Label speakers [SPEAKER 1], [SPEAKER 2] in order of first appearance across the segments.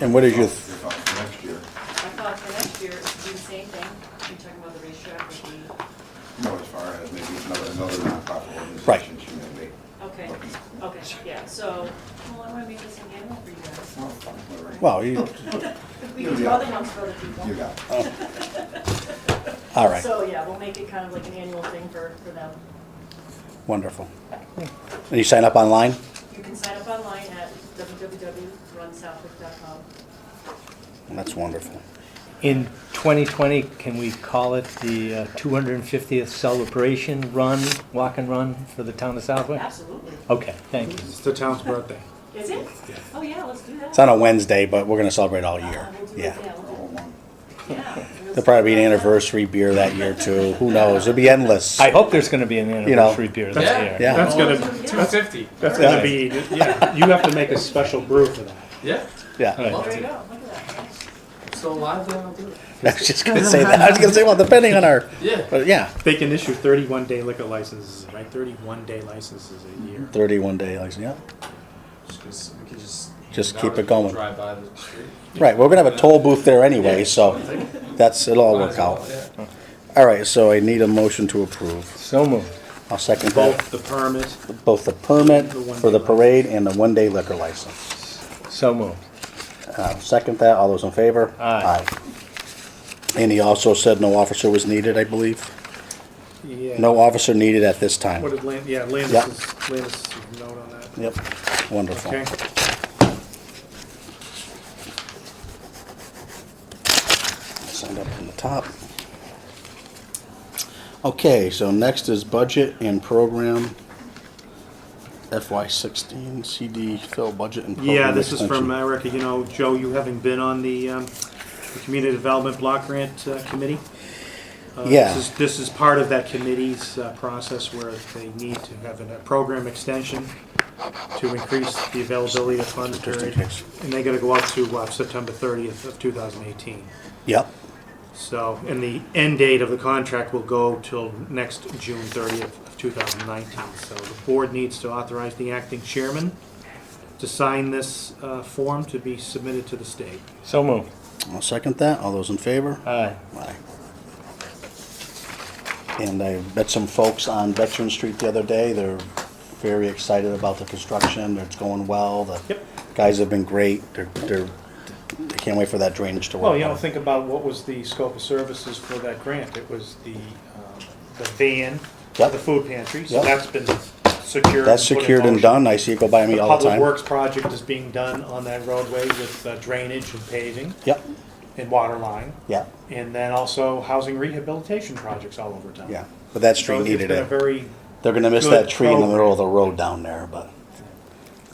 [SPEAKER 1] And what is your, th-
[SPEAKER 2] You're fine for next year.
[SPEAKER 3] I thought for next year, do the same thing, you're talking about the racetrack would be,
[SPEAKER 2] You know, as far as maybe another, another nonprofit
[SPEAKER 1] Right.
[SPEAKER 2] organization she may be.
[SPEAKER 3] okay,
[SPEAKER 2] looking at.
[SPEAKER 3] okay, yeah, so, well, I wanna make this an annual for you guys.
[SPEAKER 2] Well, whatever.
[SPEAKER 1] well, you,
[SPEAKER 3] We can do other ones for other people.
[SPEAKER 2] You got it.
[SPEAKER 1] all right,
[SPEAKER 3] So, yeah, we'll make it kind of like an annual thing for, for them.
[SPEAKER 1] wonderful. And you sign up online?
[SPEAKER 3] You can sign up online at www.runsouthwick.com.
[SPEAKER 1] That's wonderful.
[SPEAKER 4] In 2020, can we call it the uh, 250th celebration run, walk and run for the town of Southwick?
[SPEAKER 3] Absolutely.
[SPEAKER 4] Okay, thank you.
[SPEAKER 5] It's the town's birthday.
[SPEAKER 3] Is it? Oh, yeah, let's do that.
[SPEAKER 1] It's on a Wednesday, but we're gonna celebrate all year,
[SPEAKER 3] We'll do it, yeah,
[SPEAKER 1] yeah.
[SPEAKER 3] we'll do
[SPEAKER 2] Roll
[SPEAKER 3] it,
[SPEAKER 2] one.
[SPEAKER 3] yeah.
[SPEAKER 1] There'll probably be an anniversary beer that year too, who knows, it'll be endless.
[SPEAKER 4] I hope there's going to be an
[SPEAKER 1] You know.
[SPEAKER 4] anniversary beer this
[SPEAKER 5] Yeah.
[SPEAKER 4] year.
[SPEAKER 1] Yeah.
[SPEAKER 5] That's gonna,
[SPEAKER 6] Oh,
[SPEAKER 3] Yeah.
[SPEAKER 5] that's fifty. That's gonna be, yeah, you have to make a special brew for that.
[SPEAKER 6] Yeah,
[SPEAKER 1] Yeah,
[SPEAKER 4] Right.
[SPEAKER 3] There you go, look at that.
[SPEAKER 6] so alive, then I'll do it.
[SPEAKER 1] I was just gonna say that, I was gonna say, well, depending on our,
[SPEAKER 6] Yeah.
[SPEAKER 1] but yeah,
[SPEAKER 5] They can issue thirty-one day liquor licenses, right? Thirty-one day licenses a
[SPEAKER 1] Mm-hmm.
[SPEAKER 5] year.
[SPEAKER 1] thirty-one day, like, yeah.
[SPEAKER 6] Just 'cause we could just.
[SPEAKER 1] Just
[SPEAKER 6] hand
[SPEAKER 1] keep
[SPEAKER 6] out
[SPEAKER 1] it
[SPEAKER 6] as people
[SPEAKER 1] going.
[SPEAKER 6] Drive by the street.
[SPEAKER 1] Right, we're gonna have a toll booth there anyway, so that's, it'll all
[SPEAKER 6] Might
[SPEAKER 1] work
[SPEAKER 6] as well,
[SPEAKER 1] out.
[SPEAKER 6] yeah.
[SPEAKER 1] All right, so I need a motion to approve.
[SPEAKER 4] So moved.
[SPEAKER 1] I'll second that,
[SPEAKER 5] Both the permit,
[SPEAKER 1] both the permit for the parade and the one-day liquor license.
[SPEAKER 4] So moved.
[SPEAKER 1] Uh, Second that, all those in favor?
[SPEAKER 4] Aye.
[SPEAKER 1] Aye. And he also said no officer was needed, I believe.
[SPEAKER 5] yeah.
[SPEAKER 1] No officer needed at this time.
[SPEAKER 5] What did Land, yeah,
[SPEAKER 1] Yeah.
[SPEAKER 5] Landis is, Landis is note on that.
[SPEAKER 1] Yep, wonderful.
[SPEAKER 5] Okay,
[SPEAKER 1] Signed up from the top. Okay, so next is budget and program FY sixteen CD fill budget and program
[SPEAKER 5] yeah, this is
[SPEAKER 1] extension.
[SPEAKER 5] from uh, Erica, you know, Joe, you having been on the, um, the Community Development Block Grant uh, Committee. Uh,
[SPEAKER 1] Yeah.
[SPEAKER 5] This is, this is part of that committee's uh, process where they need to have a program extension to increase the availability of funds
[SPEAKER 1] in
[SPEAKER 5] period.
[SPEAKER 1] case.
[SPEAKER 5] And they gotta go out to, uh, September thirtieth of two thousand eighteen.
[SPEAKER 1] Yep,
[SPEAKER 5] So, and the end date of the contract will go till next June 30th of 2019. So the board needs to authorize the acting chairman to sign this uh, form to be submitted to the state.
[SPEAKER 4] So moved. Uh,
[SPEAKER 1] I'll second that. All those in favor?
[SPEAKER 4] Aye.
[SPEAKER 1] Aye. And I met some folks on Veteran Street the other day. They're very excited about the construction. It's going well. The
[SPEAKER 5] Yep.
[SPEAKER 1] guys have been great. They're, they're, they can't wait for that drainage to work.
[SPEAKER 5] Well, Oh, you know,
[SPEAKER 1] out.
[SPEAKER 5] think about what was the scope of services for that grant. It was the, um, the van,
[SPEAKER 1] Yep.
[SPEAKER 5] the food pantry, so
[SPEAKER 1] Yep.
[SPEAKER 5] that's been secured.
[SPEAKER 1] That's
[SPEAKER 5] put in
[SPEAKER 1] secured and
[SPEAKER 5] motion.
[SPEAKER 1] done. I see it go by me all the
[SPEAKER 5] Public
[SPEAKER 1] time.
[SPEAKER 5] Works project is being done on that roadway with uh, drainage and paving
[SPEAKER 1] Yep,
[SPEAKER 5] and water line.
[SPEAKER 1] yeah,
[SPEAKER 5] And then also housing rehabilitation projects all over town.
[SPEAKER 1] yeah. But that
[SPEAKER 5] So
[SPEAKER 1] street
[SPEAKER 5] it's
[SPEAKER 1] needed
[SPEAKER 5] been a
[SPEAKER 1] it.
[SPEAKER 5] very,
[SPEAKER 1] They're gonna miss
[SPEAKER 5] good
[SPEAKER 1] that tree in the
[SPEAKER 5] program.
[SPEAKER 1] middle of the road down there, but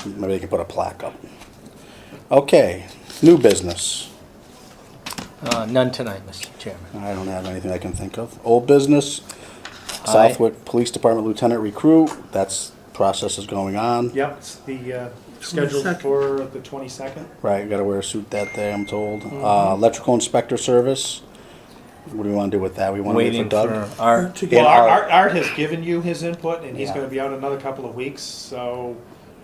[SPEAKER 1] maybe they can put a plaque up. Okay, new business.
[SPEAKER 4] Uh, None tonight, Mr. Chairman.
[SPEAKER 1] I don't have anything I can think of. Old business,
[SPEAKER 4] Aye.
[SPEAKER 1] Southwick Police Department Lieutenant Recruit, that's, process is going on.
[SPEAKER 5] yep, it's the, uh, scheduled for the twenty-second.
[SPEAKER 1] Right, gotta wear a suit that day, I'm told.
[SPEAKER 4] Mm-hmm.
[SPEAKER 1] Uh, electrical inspector service, what do we wanna do with that? We wanna wait for
[SPEAKER 4] Waiting for
[SPEAKER 1] Doug?
[SPEAKER 4] Art.
[SPEAKER 1] Yeah,
[SPEAKER 5] Well, Art,
[SPEAKER 1] Art-
[SPEAKER 5] Art- Art has given you his input and he's
[SPEAKER 1] Yeah.
[SPEAKER 5] gonna be out another couple of weeks, so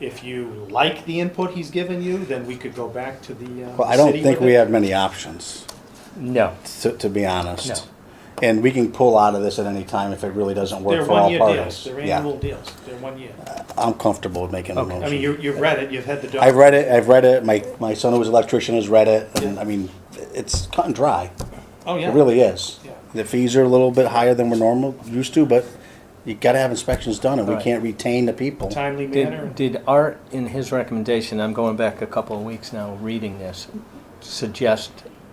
[SPEAKER 5] if you like the input he's given you, then we could go back to the, uh.
[SPEAKER 1] Well, I don't
[SPEAKER 5] city
[SPEAKER 1] think
[SPEAKER 5] with
[SPEAKER 1] we
[SPEAKER 5] it.
[SPEAKER 1] have many options,
[SPEAKER 4] No.
[SPEAKER 1] to, to be honest.
[SPEAKER 4] No.
[SPEAKER 1] And we can pull out of this at any time if it really doesn't
[SPEAKER 5] They're
[SPEAKER 1] work for all
[SPEAKER 5] one-year deals,
[SPEAKER 1] parties.
[SPEAKER 5] they're
[SPEAKER 1] Yeah,
[SPEAKER 5] annual deals, they're one year.
[SPEAKER 1] I'm comfortable with making a motion.
[SPEAKER 5] I mean, you, you've read it, you've had the. doc-
[SPEAKER 1] I've read it, I've read it, my, my son who was an electrician has read it, and I mean, it's cut and dry.
[SPEAKER 5] Oh, yeah.
[SPEAKER 1] It really is.
[SPEAKER 5] Yeah.
[SPEAKER 1] The fees are a little bit higher than we're normal, used to, but you gotta have inspections done, and we
[SPEAKER 4] Right.
[SPEAKER 1] can't retain the people.
[SPEAKER 5] Timely manner.
[SPEAKER 4] Did, did Art, in his recommendation, I'm going back a couple of weeks now, reading this, suggest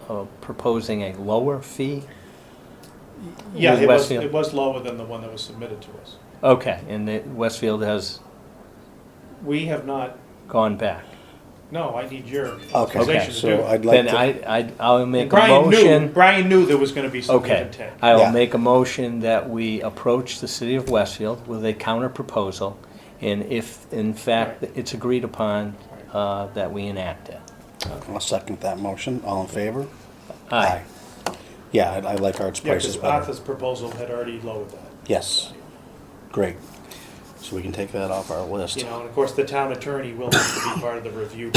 [SPEAKER 4] uh, proposing a lower fee?
[SPEAKER 5] Yeah,
[SPEAKER 4] with
[SPEAKER 5] it was,
[SPEAKER 4] Westfield.
[SPEAKER 5] it was lower than the one that was submitted to us.
[SPEAKER 4] Okay, and that Westfield has
[SPEAKER 5] We have not,
[SPEAKER 4] gone back.
[SPEAKER 5] no, I need your
[SPEAKER 1] Okay,
[SPEAKER 5] authorization to do
[SPEAKER 1] so
[SPEAKER 5] it.
[SPEAKER 1] I'd like
[SPEAKER 4] Then
[SPEAKER 1] to,
[SPEAKER 4] I, I, I'll make a
[SPEAKER 5] Brian knew,
[SPEAKER 4] motion.
[SPEAKER 5] Brian knew there was gonna be some give
[SPEAKER 4] Okay,
[SPEAKER 5] and take.
[SPEAKER 4] I
[SPEAKER 1] Yeah.
[SPEAKER 4] will make a motion that we approach the city of Westfield with a counter proposal. And if, in fact, it's agreed upon, uh, that we enact it.
[SPEAKER 1] I'll second that motion, all in favor?
[SPEAKER 4] Aye.
[SPEAKER 1] Aye. Yeah, I, I like Art's
[SPEAKER 5] Yeah,
[SPEAKER 1] prices
[SPEAKER 5] because
[SPEAKER 1] better.
[SPEAKER 5] Arthur's proposal had already lowered that,
[SPEAKER 1] Yes, great. So we can take that off our list.
[SPEAKER 5] you know, and of course, the town attorney will have to be part of the review